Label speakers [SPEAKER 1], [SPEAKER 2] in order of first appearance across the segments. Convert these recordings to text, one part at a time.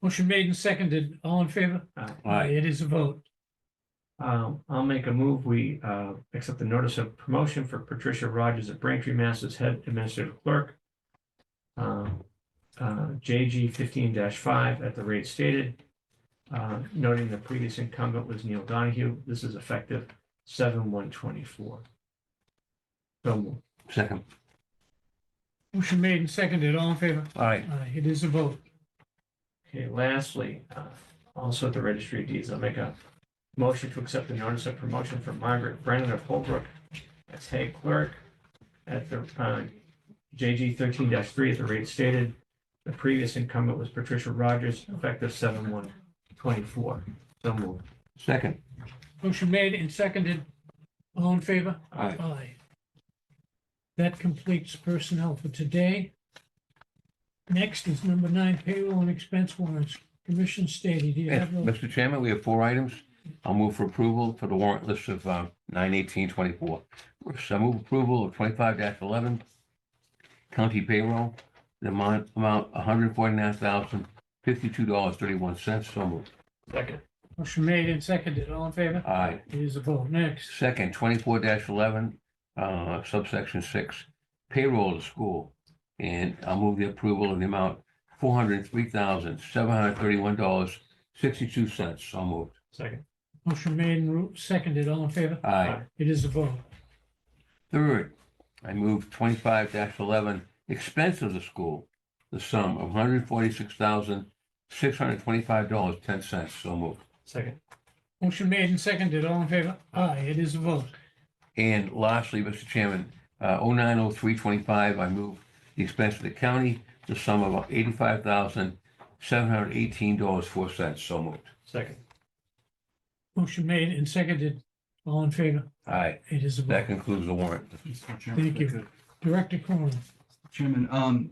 [SPEAKER 1] Motion made and seconded, all in favor?
[SPEAKER 2] Aye.
[SPEAKER 1] It is a vote.
[SPEAKER 3] Uh, I'll make a move. We, uh, accept the notice of promotion for Patricia Rogers of Braintree, Mass. as head administrative clerk. Um, uh, JG fifteen five at the rate stated. Uh, noting the previous incumbent was Neil Donahue. This is effective seven one twenty-four. So moved.
[SPEAKER 2] Second.
[SPEAKER 1] Motion made and seconded, all in favor?
[SPEAKER 2] Aye.
[SPEAKER 1] Aye, It is a vote.
[SPEAKER 3] Okay, lastly, uh, also at the registry of deeds, I'll make a motion to accept the notice of promotion for Margaret Brennan of Holbrook as head clerk at the uh, JG thirteen three at the rate stated. The previous incumbent was Patricia Rogers, effective seven one twenty-four. So moved.
[SPEAKER 2] Second.
[SPEAKER 1] Motion made and seconded, all in favor?
[SPEAKER 2] Aye.
[SPEAKER 1] Aye. That completes personnel for today. Next is number nine payroll and expense warrants. Commission stated, do you
[SPEAKER 2] Yes,
[SPEAKER 1] have those?
[SPEAKER 2] Mr. Chairman, we have four items. I'll move for approval for the warrant list of uh, nine eighteen twenty-four. First, I move approval of twenty-five eleven county payroll, the amount, amount one hundred forty-nine thousand fifty-two dollars thirty-one cents. So moved.
[SPEAKER 3] Second.
[SPEAKER 1] Motion made and seconded, all in favor?
[SPEAKER 2] Aye.
[SPEAKER 1] It is a vote. Next,
[SPEAKER 2] Second, twenty-four eleven, uh, subsection six, payroll to school. And I'll move the approval of the amount four hundred three thousand, seven hundred thirty-one dollars, sixty-two cents. So moved.
[SPEAKER 3] Second.
[SPEAKER 1] motion made and ru- seconded, all in favor?
[SPEAKER 2] Aye.
[SPEAKER 1] It is a vote.
[SPEAKER 2] Third, I move twenty-five eleven, expense of the school, the sum of one hundred forty-six thousand, six hundred twenty-five dollars, ten cents. So moved.
[SPEAKER 3] Second.
[SPEAKER 1] Motion made and seconded, all in favor? Aye, it is a vote.
[SPEAKER 2] And lastly, Mr. Chairman, oh nine oh three twenty-five, I move the expense of the county, the sum of eighty-five thousand, seven hundred eighteen dollars, four cents, so moved.
[SPEAKER 3] Second.
[SPEAKER 1] Motion made and seconded, all in favor?
[SPEAKER 2] All right,
[SPEAKER 1] It is a
[SPEAKER 2] that
[SPEAKER 1] vote.
[SPEAKER 2] concludes the warrant.
[SPEAKER 4] Mr. Chairman, if
[SPEAKER 1] Thank
[SPEAKER 4] I
[SPEAKER 1] you.
[SPEAKER 4] could.
[SPEAKER 1] Director Cronin.
[SPEAKER 4] Chairman, um,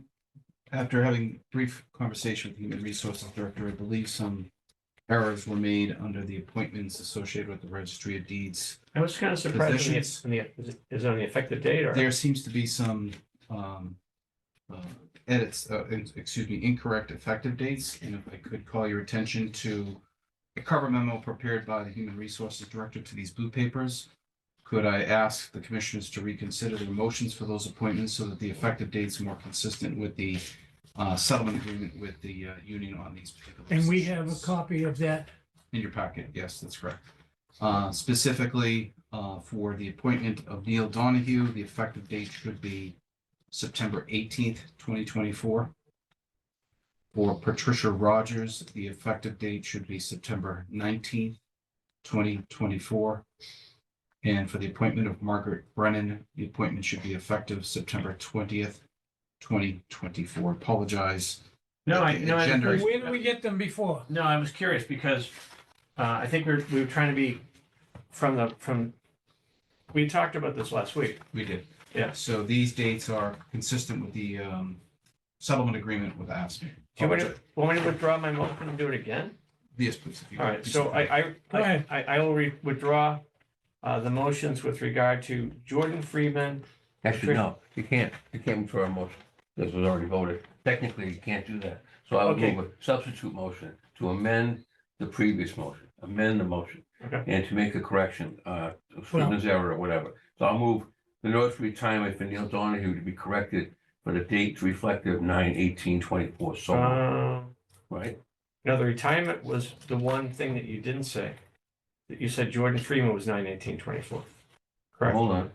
[SPEAKER 4] after having a brief conversation with the Human Resources Director, I believe some errors were made under the appointments associated with the Registry of Deeds.
[SPEAKER 3] I was kind of surprised when
[SPEAKER 4] Positions.
[SPEAKER 3] the- when the- is it- is it on the effective date or?
[SPEAKER 4] There seems to be some, um, uh, edits, uh, in- excuse me, incorrect effective dates. And if I could call your attention to a cover memo prepared by the Human Resources Director to these blue papers. Could I ask the commissioners to reconsider their motions for those appointments so that the effective date's more consistent with the uh, settlement agreement with the uh, union on these particular.
[SPEAKER 1] And we have a
[SPEAKER 4] positions?
[SPEAKER 1] copy of that.
[SPEAKER 4] In your packet, yes, that's correct. Uh, specifically, uh, for the appointment of Neil Donahue, the effective date should be September eighteenth, twenty twenty-four. For Patricia Rogers, the effective date should be September nineteenth, twenty twenty-four. And for the appointment of Margaret Brennan, the appointment should be effective September twentieth, twenty twenty-four. Apologize.
[SPEAKER 3] No, I, no, I.
[SPEAKER 4] Gender.
[SPEAKER 1] Where did we get them before?
[SPEAKER 3] No, I was curious because uh, I think we're, we were trying to be from the, from, we talked about this last week.
[SPEAKER 4] We did.
[SPEAKER 3] Yeah.
[SPEAKER 4] So these dates are consistent with the um, settlement agreement with ASME.
[SPEAKER 3] Do you want to, want me to withdraw my motion and do it again?
[SPEAKER 4] Yes, please. if you-
[SPEAKER 3] All right, so I, I,
[SPEAKER 1] Go ahead.
[SPEAKER 3] I, I will re- withdraw uh, the motions with regard to Jordan Freeman.
[SPEAKER 2] Actually, no, you can't, you can't withdraw a motion, this was already voted, technically, you can't do that. So I would
[SPEAKER 3] Okay.
[SPEAKER 2] move a substitute motion to amend the previous motion, amend the motion.
[SPEAKER 3] Okay.
[SPEAKER 2] And to make a correction, uh, Scrivener's error or whatever. So I'll move the notice of retirement for Neil Donahue to be corrected for the date reflective nine eighteen twenty-four, so, moved,
[SPEAKER 3] Um,
[SPEAKER 2] right?
[SPEAKER 3] No, the retirement was the one thing that you didn't say. That you said Jordan Freeman was nine eighteen twenty-four. Correct.
[SPEAKER 2] Hold on.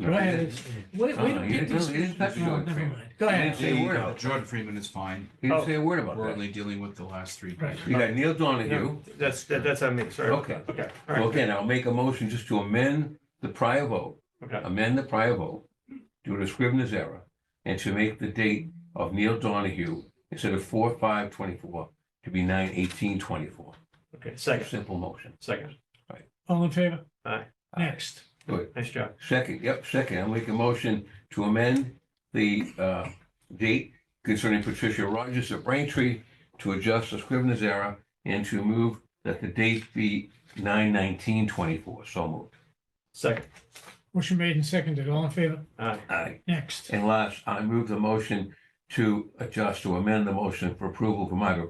[SPEAKER 1] Go ahead. It's- Wait,
[SPEAKER 2] Uh,
[SPEAKER 1] wait, don't
[SPEAKER 2] you
[SPEAKER 1] get
[SPEAKER 2] didn't-
[SPEAKER 1] this.
[SPEAKER 2] you didn't touch
[SPEAKER 1] No,
[SPEAKER 2] it.
[SPEAKER 1] never mind. Go
[SPEAKER 2] You
[SPEAKER 1] ahead.
[SPEAKER 2] didn't say a word
[SPEAKER 4] The
[SPEAKER 2] about that.
[SPEAKER 4] Jordan Freeman is fine.
[SPEAKER 2] He
[SPEAKER 3] Oh.
[SPEAKER 2] didn't say a word about
[SPEAKER 4] We're
[SPEAKER 2] that.
[SPEAKER 4] only dealing with the last three.
[SPEAKER 1] Right.
[SPEAKER 2] You got Neil Donahue,
[SPEAKER 3] No, That's, that- that's on me, sorry.
[SPEAKER 2] okay.
[SPEAKER 3] Okay, all
[SPEAKER 2] So
[SPEAKER 3] right,
[SPEAKER 2] again, I'll make a motion just to amend the prior vote,
[SPEAKER 3] okay,
[SPEAKER 2] amend the prior vote due to Scrivener's error, and to make the date of Neil Donahue instead of four, five, twenty-four to be nine, eighteen, twenty-four.
[SPEAKER 3] okay, second,
[SPEAKER 2] Simple motion.
[SPEAKER 3] second,
[SPEAKER 1] All in favor?
[SPEAKER 3] Aye.
[SPEAKER 1] Next.
[SPEAKER 3] nice job.
[SPEAKER 2] Second, yep, second, I'll make a motion to amend the uh, date concerning Patricia Rogers of Braintree to adjust the Scrivener's error and to move that the date be nine, nineteen, twenty-four. So moved.
[SPEAKER 3] Second,
[SPEAKER 1] Motion made and seconded. All in favor?
[SPEAKER 3] aye,
[SPEAKER 2] Aye.
[SPEAKER 1] Next.
[SPEAKER 2] And last, I move the motion to adjust, to amend the motion for approval for Margaret